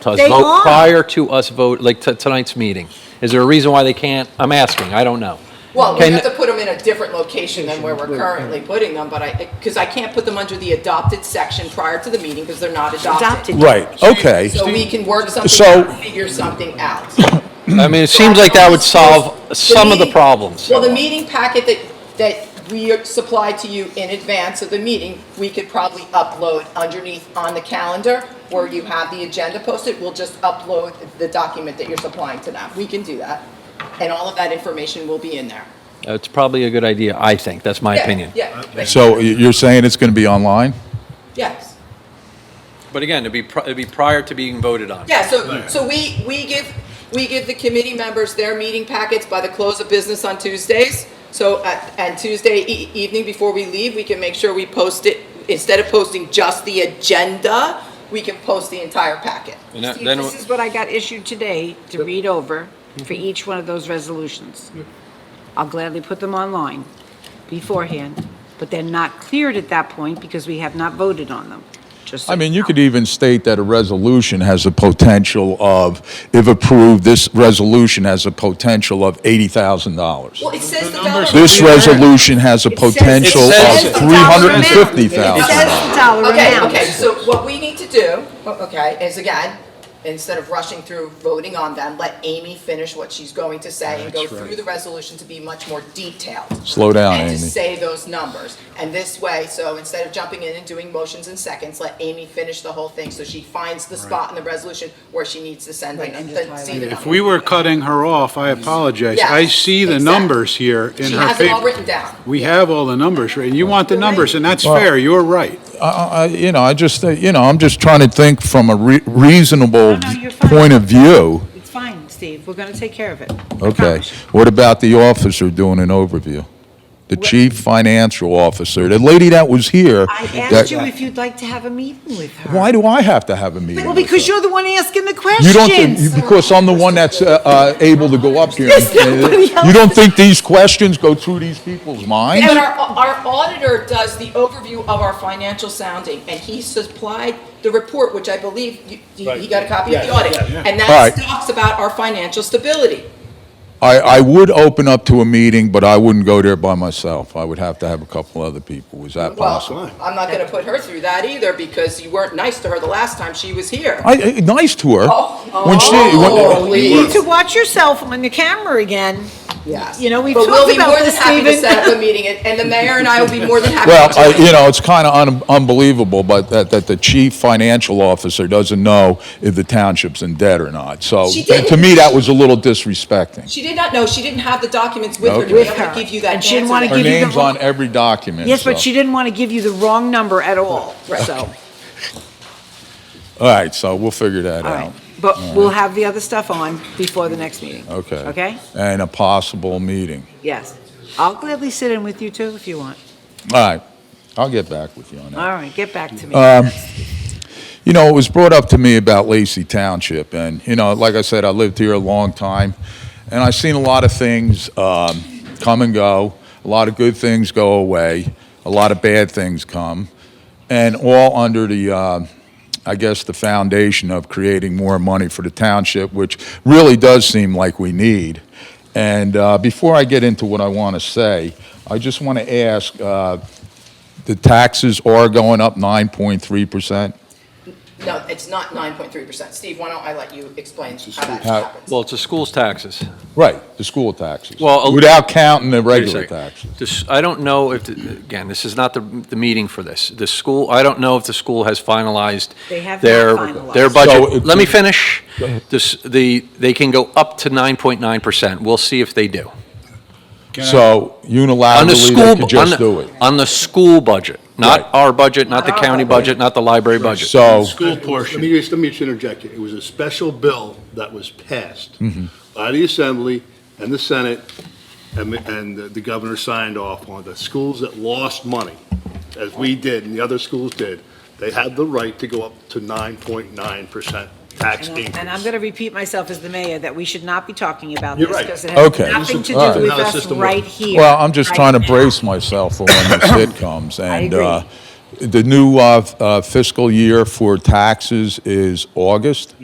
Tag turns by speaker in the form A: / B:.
A: to us
B: They
A: vote-
B: are.
A: Prior to us vote, like to tonight's meeting? Is there a reason why they can't? I'm asking, I don't know.
C: Well, we
A: Can-
C: have to put them in a different location than where we're currently putting them, but I, because I can't put them under the adopted section prior to the meeting because they're not
B: Adopted.
C: adopted.
D: Right, okay.
C: So we can work something
D: So-
C: out, figure something out.
A: I mean, it seems like that would solve some of the
C: meeting-
A: problems.
C: Well, the meeting packet that, that we supplied to you in advance of the meeting, we could probably upload underneath on the calendar where you have the agenda posted. We'll just upload the document that you're supplying to them. We can do that. And all of that information will be in there.
A: It's probably a good idea, I think, that's my
C: Yeah,
A: opinion.
C: Yeah. but-
D: So y- you're saying it's going to be online?
C: Yes.
A: But again, it'd be, pri- it'd be prior to being voted on.
C: Yeah, so, so we, we give, we give the committee members their meeting packets by the close of business on Tuesdays. So, uh, and Tuesday e- evening before we leave, we can make sure we post it, instead of posting just the agenda, we can post the entire packet.
A: And that-
B: Steve,
A: then-
B: This is what I got issued today to read over for each one of those resolutions. I'll gladly put them online beforehand, but they're not cleared at that point because we have not voted on them, just so
D: I mean, you
B: know.
D: could even state that a resolution has the potential of, if approved, this resolution has a potential of $80,000.
C: Well, it says development.
D: This resolution has a
B: It says-
D: potential
A: It
D: of
A: says
B: the dollar amount. It
D: $350,000.
B: says the dollar
C: Okay,
B: amount.
C: okay, so what we need to do, okay, is again, instead of rushing through voting on them, let Amy finish what she's going to say and go through the resolution to be much more detailed.
D: Slow down,
C: And to
D: Amy.
C: say those numbers. And this way, so instead of jumping in and doing motions in seconds, let Amy finish the whole thing so she finds the spot in the resolution where she needs to send the,
B: Right, and
C: the-
B: just highlight
C: see the
E: If
C: number.
E: we were cutting her off, I apologize.
C: Yeah,
E: I see the
C: exactly.
E: numbers here in
C: She
E: her
C: has it all
E: paper.
C: written down.
E: We have all the numbers, right? And you want the numbers, and that's fair, you're right.
D: I- I- I- You know, I just, uh, you know, I'm just trying to think from a re- reasonable
B: No, no, you're fine.
D: point of view.
B: It's fine, Steve, we're gonna take care of it. I
D: Okay.
B: promise you.
D: What about the officer doing an overview? The chief financial officer, the lady that was here.
B: I
D: that-
B: asked you if you'd like to have a meeting with her.
D: Why do I have to have a meeting?
B: Well,
D: with
B: because
D: her?
B: you're the one asking the
D: You don't think,
B: questions.
D: you- because I'm the one that's uh, uh, able to go up here. and-
B: There's nobody else.
D: You don't think these questions go through these people's minds?
C: And our, our auditor does the overview of our financial sounding, and he supplied the report, which I believe you, you- he got a copy of the audit. And that
D: Right.
C: talks about our financial stability.
D: I, I would open up to a meeting, but I wouldn't go there by myself. I would have to have a couple other people. Is that possible?
C: Well, I'm not gonna put her through that either, because you weren't nice to her the last time she was here.
D: I, I- nice to her.
C: Oh,
D: When she- when-
C: oh,
B: You
C: please.
B: need to watch yourself on the camera again.
C: Yes.
B: You know, we've
C: But we'll
B: talked
C: be more
B: about
C: than
B: this,
C: happy to
B: Stephen.
C: set up a meeting, and, and the mayor and I will be more than happy.
D: Well,
C: to do
D: I,
C: it.
D: you know, it's kind of un- unbelievable, but that, that the chief financial officer doesn't know if the township's in debt or not. So
C: She
D: that- to
C: didn't.
D: me, that was a little disrespecting.
C: She did not know, she didn't have the documents with her to be
D: Okay.
C: able to give you that
B: And she didn't
C: answer
B: wanna
C: that-
B: give
D: Her
B: you the
D: name's
B: wrong-
D: on every document.
B: Yes, but
D: so-
B: she didn't want to give you the wrong number at all, so,
D: All right, so we'll figure that
B: all
D: out.
B: right. But we'll have the other stuff on before the next meeting.
D: Okay.
B: Okay?
D: And a possible meeting.
B: Yes. I'll gladly sit in with you too if you want.
D: All right, I'll get back with you on that.
B: All right, get back to me.
D: You know, it was brought up to me about Lacey Township, and, you know, like I said, I lived here a long time, and I've seen a lot of things um, come and go, a lot of good things go away, a lot of bad things come, and all under the, uh, I guess, the foundation of creating more money for the township, which really does seem like we need. And uh, before I get into what I want to say, I just want to ask, uh, the taxes are going up 9.3%?
C: No, it's not nine point three percent. Steve, why don't I let you explain how that
D: How-
C: happens?
A: Well, it's the school's taxes.
D: Right, the school taxes.
A: Well, a-
D: Without counting the
A: Wait a
D: regular
A: second.
D: taxes.
A: This- I don't know if, the- again, this is not the, the meeting for this. The school, I don't know if the school has finalized
B: They have not
A: their,
B: finalized.
A: their
D: So
A: budget.
D: if
A: Let
D: we-
A: me finish. This, the, they can go up to 9.9%. We'll see if they do.
E: Can I-
D: So
A: On the
D: unilaterally,
A: school,
D: they
A: bu-
D: could
A: on
D: just do
A: the,
D: it.
A: on the school budget,
D: Right.
A: not our budget, not the
B: Not our
A: county budget, not the library budget.
D: So,
F: School portion. Let me just, let me just interject here. It was a special bill that was passed by the Assembly and the Senate, and, and the governor signed off on the schools that lost money, as we did and the other schools did, they had the right to go up to nine point nine percent tax
B: And I-
F: increase.
B: And I'm going to repeat myself as the mayor, that we should not be talking about this.
F: You're right.
B: Because it has
D: Okay.
B: nothing to
D: All
B: do
D: right.
B: with
F: Now the
B: us
F: system
B: right
F: works.
B: here.
D: well, I'm just
B: right
D: trying to
B: now.
D: brace myself for when this hit comes. And
B: agree.
D: uh, the new uh, f- uh, fiscal year for taxes is August?